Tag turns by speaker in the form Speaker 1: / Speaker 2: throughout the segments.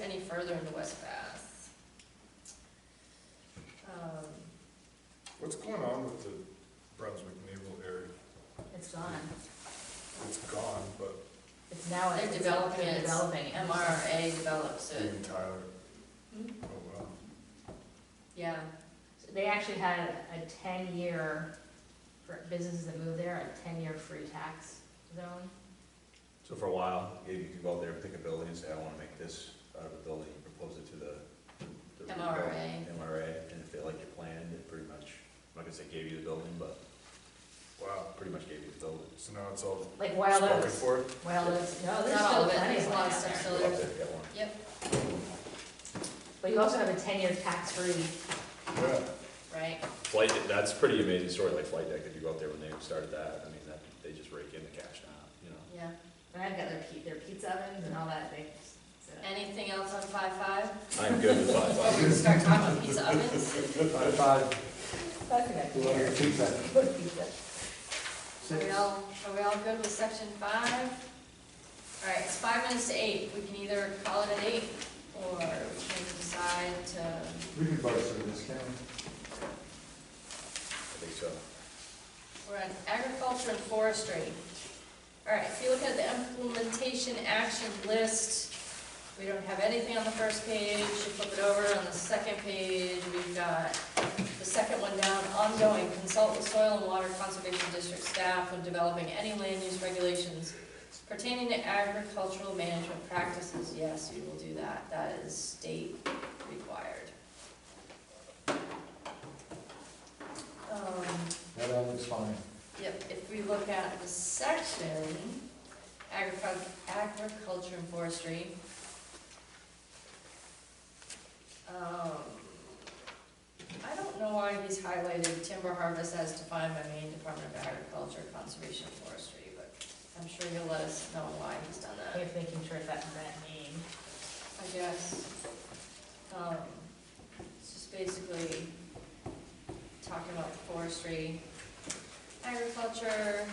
Speaker 1: any further into West Bass. Um,
Speaker 2: What's going on with the Brunswick Naval Area?
Speaker 3: It's gone.
Speaker 2: It's gone, but
Speaker 3: It's now.
Speaker 1: They're
Speaker 3: it's-
Speaker 1: developing
Speaker 3: they're
Speaker 1: it.
Speaker 3: Developing it.
Speaker 1: MRA develops it,
Speaker 2: even Tyler,
Speaker 1: Uh. Hmm?
Speaker 2: oh wow.
Speaker 1: yeah.
Speaker 3: So They actually had a ten-year, for businesses that move there, a ten-year free tax zone.
Speaker 4: So for a while, if you could go out there and pick a building and say, I wanna make this out of a building, you propose it to the. the- the
Speaker 1: MRA.
Speaker 4: MRA, and if they liked your plan, they pretty much, I'm not gonna say gave you the building, but
Speaker 2: Wow,
Speaker 4: pretty much gave you the building.
Speaker 2: so now it's all
Speaker 3: Like Wild
Speaker 2: spoken
Speaker 3: Oats,
Speaker 2: for?
Speaker 3: Wild Oats, no, there's
Speaker 1: Not all
Speaker 3: still
Speaker 1: of it,
Speaker 3: plenty
Speaker 1: there's
Speaker 3: of
Speaker 1: a
Speaker 3: land
Speaker 1: lot of
Speaker 3: out
Speaker 1: stuff
Speaker 3: there.
Speaker 1: still
Speaker 4: Go
Speaker 1: there.
Speaker 4: out there, get one.
Speaker 1: Yep,
Speaker 3: But you also have a ten-year tax-free,
Speaker 2: Yeah,
Speaker 1: right,
Speaker 4: Flight, Deck- that's a pretty amazing story, like Flight Deck, if you go out there when they started that, I mean, that, they just rake in the cash now, you know?
Speaker 1: yeah.
Speaker 3: and I've got their pe, their pizza ovens and all that, they. so-
Speaker 1: Anything else on five five?
Speaker 4: I'm good with five
Speaker 1: Before we
Speaker 4: five.
Speaker 1: start talking pizza ovens?
Speaker 3: That's a good idea. Good pizza.
Speaker 1: Are we all, are we all good with section five? All right, it's five minutes to eight, we can either call it at eight, or we can decide to,
Speaker 5: We can vote for this, can we?
Speaker 4: I think so.
Speaker 1: we're on agriculture and forestry. All right, if you look at the implementation action list, we don't have anything on the first page, you flip it over, on the second page, we've got the second one down, ongoing, consult with soil and water conservation district staff when developing any land use regulations Pertaining to agricultural management practices, yes, we will do that, that is state required. Um,
Speaker 5: That all looks fine.
Speaker 1: Yep, if we look at the section, agriculture, agriculture and forestry. Um, I don't know why he's highlighted timber harvest as defined by Maine Department of Agriculture, Conservation, and Forestry, but I'm sure you'll let us know why he's done that.
Speaker 3: If making sure it's that, that name.
Speaker 1: I guess. Um, It's just basically talking about forestry, agriculture,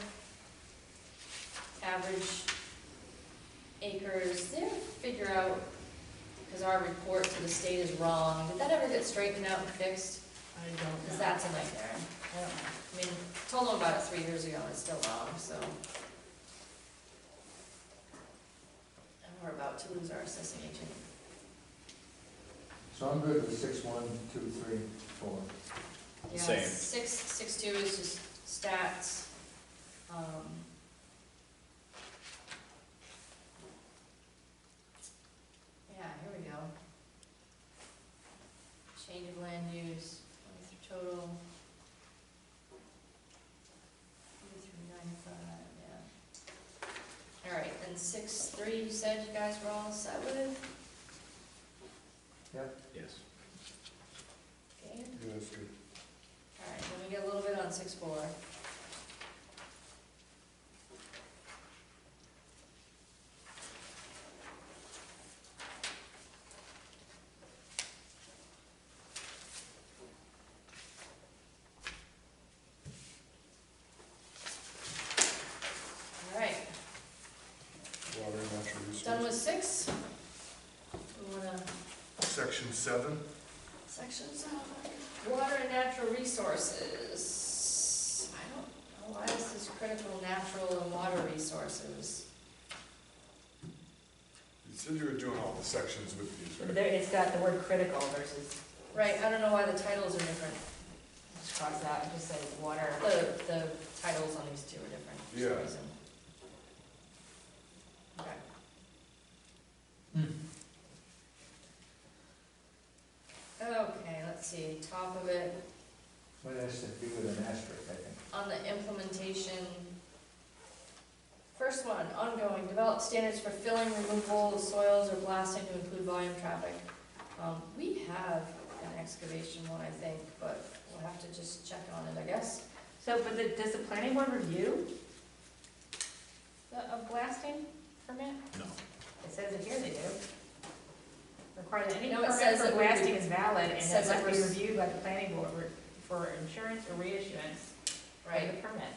Speaker 1: average acres, they have to figure out, because our report to the state is wrong, did that ever get straightened out and fixed?
Speaker 3: I don't
Speaker 1: Because
Speaker 3: know.
Speaker 1: that's a nightmare.
Speaker 3: I don't know.
Speaker 1: I mean, told them about it three years ago, and it's still wrong, so. And we're about to lose our assessing agent.
Speaker 5: So I'm good with six, one, two, three, four.
Speaker 1: Yeah,
Speaker 4: Same.
Speaker 1: Six, six two is just stats. um, Yeah, here we go. Change of land use, twenty through total. Three through ninety-five, yeah. All right, then six three, you said you guys were all set with,
Speaker 4: Yes.
Speaker 1: okay?
Speaker 2: yeah, that's good.
Speaker 1: All right, let me get a little bit on six four. All right,
Speaker 2: Water and natural resources.
Speaker 1: done with six. We wanna
Speaker 2: Section seven,
Speaker 1: Sections of water and natural resources. I don't know why this is critical, natural and water resources.
Speaker 2: you said you were doing all the sections with these,
Speaker 3: But
Speaker 2: right?
Speaker 3: there, it's got the word critical versus,
Speaker 1: Right, I don't know why the titles are different.
Speaker 3: just cross it out, and just say water.
Speaker 1: The, the titles on these two are different for some
Speaker 2: Yeah.
Speaker 1: reason. Okay. Okay, let's see, top of it,
Speaker 5: What has to do with an asterisk, I think?
Speaker 1: on the implementation. First one, ongoing, develop standards for filling, removal of soils or blasting to include volume traffic. Um, we have an excavation one, I think, but we'll have to just check on it, I guess.
Speaker 3: So, but the, does the planning board review?
Speaker 1: The, a blasting permit?
Speaker 4: No.
Speaker 3: It says it here they do. Require that any
Speaker 1: No, it
Speaker 3: permit
Speaker 1: says
Speaker 3: for
Speaker 1: it would be-
Speaker 3: blasting is valid and
Speaker 1: it
Speaker 3: it
Speaker 1: says
Speaker 3: must
Speaker 1: it
Speaker 3: be
Speaker 1: was-
Speaker 3: reviewed by the planning board re- for insurance or reissuance of the
Speaker 1: Right,
Speaker 3: permit.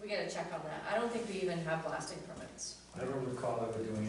Speaker 1: we gotta check on that. I don't think we even have blasting permits.
Speaker 5: I don't recall ever doing